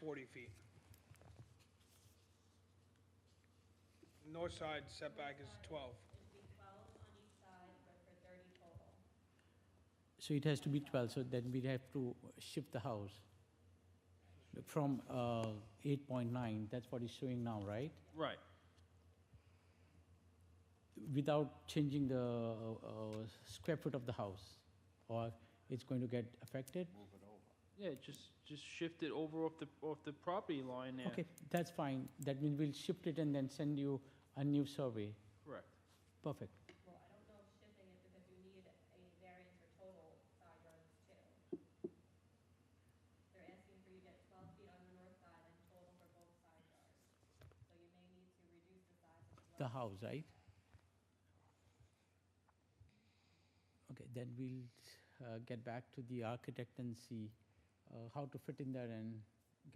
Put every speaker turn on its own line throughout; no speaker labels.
40 feet. North side setback is 12.
It'd be twelve on each side, but for thirty total.
So it has to be 12, so then we have to shift the house from uh, 8.9, that's what it's showing now, right?
Right.
Without changing the uh, square foot of the house, or it's going to get affected?
Yeah, just, just shift it over off the, off the property line there.
Okay, that's fine, that means we'll shift it and then send you a new survey,
Correct.
perfect.
Well, I don't know if shifting it because you need a variance for total side yards too. They're asking for you to get twelve feet on the north side and total for both side yards. So you may need to reduce the size of the
the
lot.
house, right? Okay, then we'll uh, get back to the architect and see uh, how to fit in there and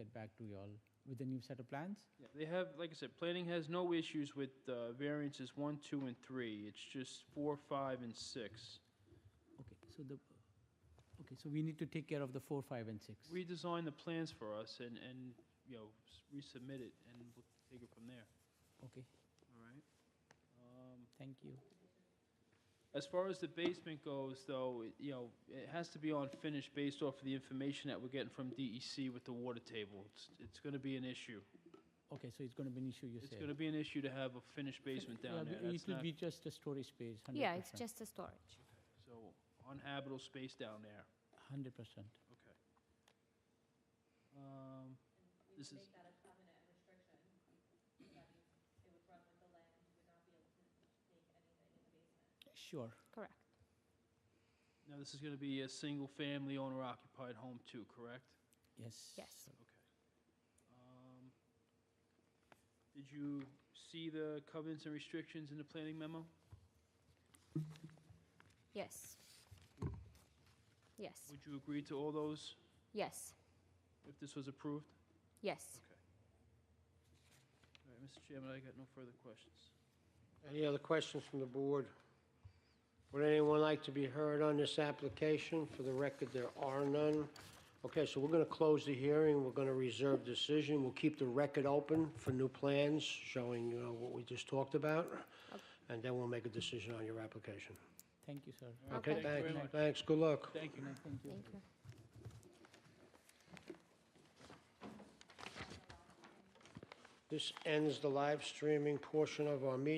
get back to y'all with a new set of plans.
Yeah, They have, like I said, planning has no issues with uh, variances one, two, and three. It's just four, five, and six.
Okay, so the, okay, so we need to take care of the four, five, and six.
Redesign the plans for us and, and, you know, s- resubmit it, and we'll take it from there,
Okay,
all right? Um,
thank you.
As far as the basement goes, though, it- you know, it has to be on finish based off of the information that we're getting from DEC with the water table. It's, it's gonna be an issue.
Okay, so it's gonna be an issue, you say?
It's gonna be an issue to have a finished basement
Yeah,
down there.
but
That's
It will
not-
be just a storage space, hundred percent.
Yeah, it's just a storage.
So unhabitable space down there.
Hundred percent.
Okay. Um,
We
This
would
is-
make that a covenant and restriction. That means it would run with the land, you would not be able to make anything in the basement.
Sure,
Correct.
now this is going to be a single-family owner-occupied home too, correct?
yes.
Yes.
Um, Did you see the covenants and restrictions in the planning memo?
Yes.
Mm.
Yes.
Would you agree to all those
Yes.
if this was approved?
Yes.
All right, Mr. Chairman, I got no further questions.
Any other questions from the board? Would anyone like to be heard on this application? For the record, there are none. Okay, so we're going to close the hearing, we're going to reserve decision, we'll keep the record open for new plans showing, you know, what we just talked about, and then we'll make a decision on your application.
Thank you, sir.
All right,
Okay.
Okay,
Thank you
thanks,
very much.
thanks, good luck.
Thank you.
Thank you.
Thank you.
This ends the live streaming portion of our meeting.